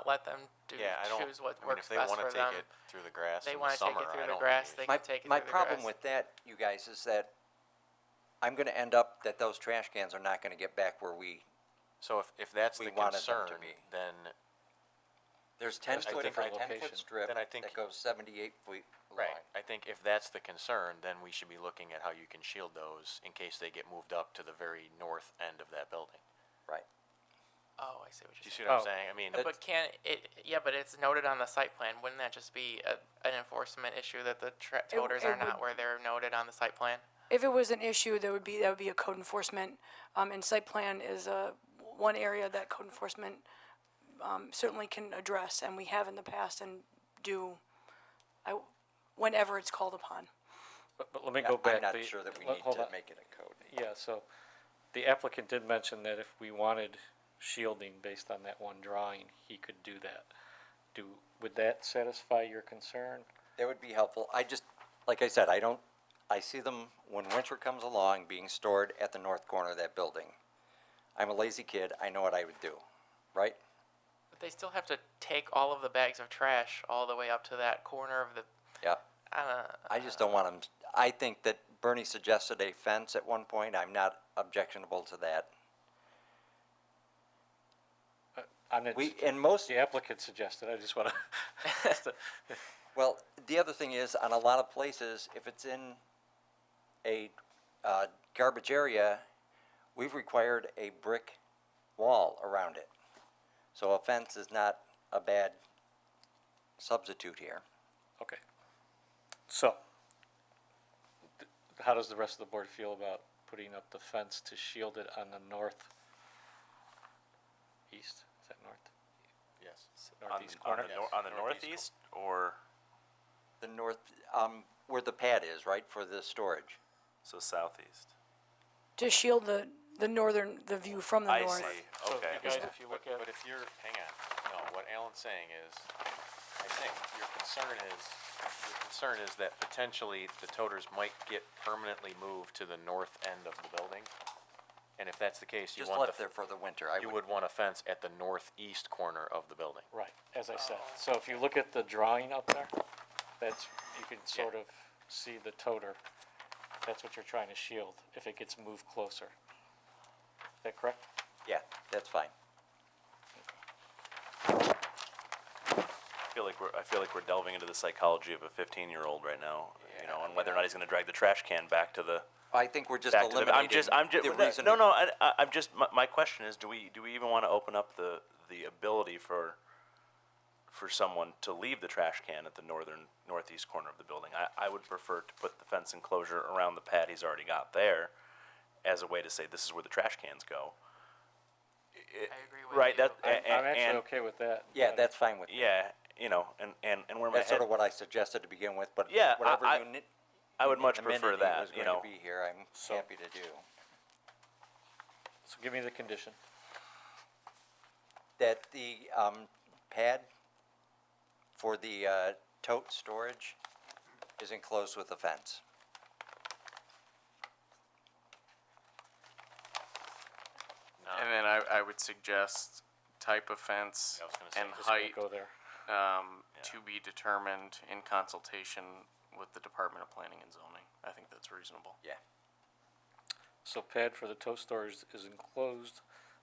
to Yeah, I don't, choose what I mean, works if they best wanna for them. take it through the grass They in the wanna take it summer, through I the don't grass, really- they- My, can take it my through the problem grass. with that, you guys, is that I'm gonna end up that those trash cans are not gonna get back where we, So if, if that's we the wanted them to concern, be. then, there's ten Just a foot, a different ten location. foot strip Then I think- that goes seventy-eight feet long. right, I think if that's the concern, then we should be looking at how you can shield those in case they get moved up to the very north end of that building. Right. Oh, I see what Do you're you saying. see what I'm Oh. saying? I mean, But can it? Yeah, but it's noted on the site plan. Wouldn't that just be a, an enforcement issue that the tra- toters it are not would- where they're noted on the site plan? If it was an issue, there would be, that would be a code enforcement, um, and site plan is, uh, one area that code enforcement, um, certainly can address, and we have in the past and do, I, whenever it's called upon. But, but let me Yeah, go back. I'm not The- sure that we let- need hold to on. make it a code. Yeah, so the applicant did mention that if we wanted shielding based on that one drawing, he could do that. Do, would that satisfy your concern? That would be helpful. I just, like I said, I don't, I see them when winter comes along being stored at the north corner of that building. I'm a lazy kid. I know what I would do, right? But they still have to take all of the bags of trash all the way up to that corner of the. Yeah. I don't know. I just don't want them, I think that Bernie suggested a fence at one point. I'm not objectionable to that. I'm not, We, and most, the applicant suggested, I just wanna, well, the other thing is, on a lot of places, if it's in a, uh, garbage area, we've required a brick wall around it. So a fence is not a bad substitute here. okay. So, th- how does the rest of the board feel about putting up the fence to shield it on the north? East, is that north? yes. Northeast on, corner? the, nor- on the Northeast northeast, or The north, um, where the pad is, right, for the storage. so southeast. To shield the, the northern, the view from the I north. see. Okay. guys, if you But, look at. but if you're, hang on, no, what Alan's saying is, I think your concern is, your concern is that potentially the toters might get permanently moved to the north end of the building. And if that's the case, you Just want left the, there f- for the winter. I you would would want a fence at the northeast corner of the building. Right, as I said. So if you look at the drawing up there, that's, you can sort of see the toter. That's what you're trying to shield, if it gets moved closer. Is that correct? Yeah, that's fine. I feel like we're I feel like we're delving into the psychology of a 15 year old right now. you know, and whether or not he's going to drag the trash can back to the I think we're just back to the. eliminating I'm just I'm just the reason. no no I, I- I'm just my, my question is do we do we even want to open up the the ability for for someone to leave the trash can at the northern northeast corner of the building. I, I would prefer to put the fence enclosure around the pad he's already got there as a way to say this is where the trash cans go. I agree with Right. you. That I'm and, I'm actually and- okay with that. Uh, Yeah, but- that's fine with me. yeah, you know, and and and where my That's head, sort of what I suggested to begin with, but Yeah, I- whatever I- you need. I would much prefer that. Was You going know, to be here. I'm happy to do So give me the condition. that. The um, pad for the uh, tote storage is enclosed with a fence. And then I, I would suggest type of fence Yeah, I was gonna say, and Just gonna height Go there. um, to be determined in consultation with the Department of Planning and Zoning. I think that's reasonable. Yeah. So pad for the tow storage is enclosed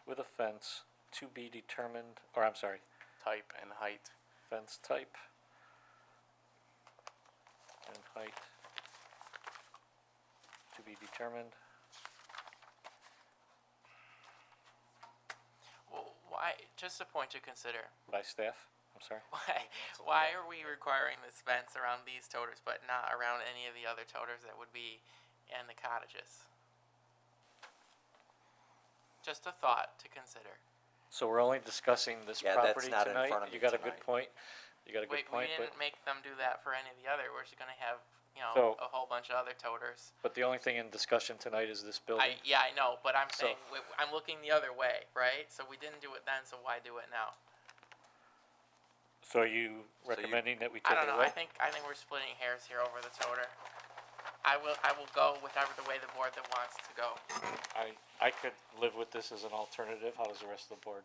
with a fence to be determined, or I'm sorry, Type and height. fence type and height to be determined. Well, why? Just a point to consider. By staff, I'm sorry. Why? Why are we requiring this fence around these toters, but not around any of the other toters that would be in the cottages? Just a thought to consider. So we're only discussing this Yeah, that's property not in front of tonight? You me got a good tonight. point. You got a Wait, good we point, but, didn't make them do that for any of the other. We're just gonna have, you know, So- a whole bunch of other toters. but the only thing in discussion tonight is this building. I, yeah, I know, but I'm So- saying, w- I'm looking the other way, right? So we didn't do it then, so why do it now? So are you recommending that we I take don't it know. I away? think I think we're splitting hairs here over the toter. I will I will go whatever the way the board that wants to go. I, I could live with this as an alternative. How does the rest of the board?